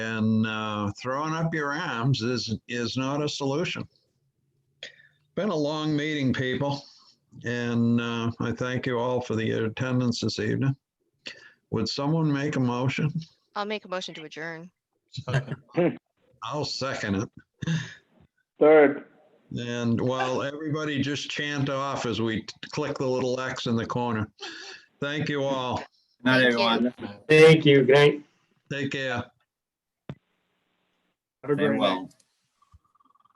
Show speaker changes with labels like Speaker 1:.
Speaker 1: And uh, throwing up your arms is, is not a solution. Been a long meeting, people, and uh, I thank you all for the attendance this evening. Would someone make a motion?
Speaker 2: I'll make a motion to adjourn.
Speaker 1: I'll second it.
Speaker 3: Third,
Speaker 1: And while everybody just chant off as we click the little X in the corner. Thank you all.
Speaker 4: Not
Speaker 2: Thank you.
Speaker 4: everyone.
Speaker 3: thank you, Grant.
Speaker 1: Take care.
Speaker 3: Have a great night.
Speaker 4: Very well.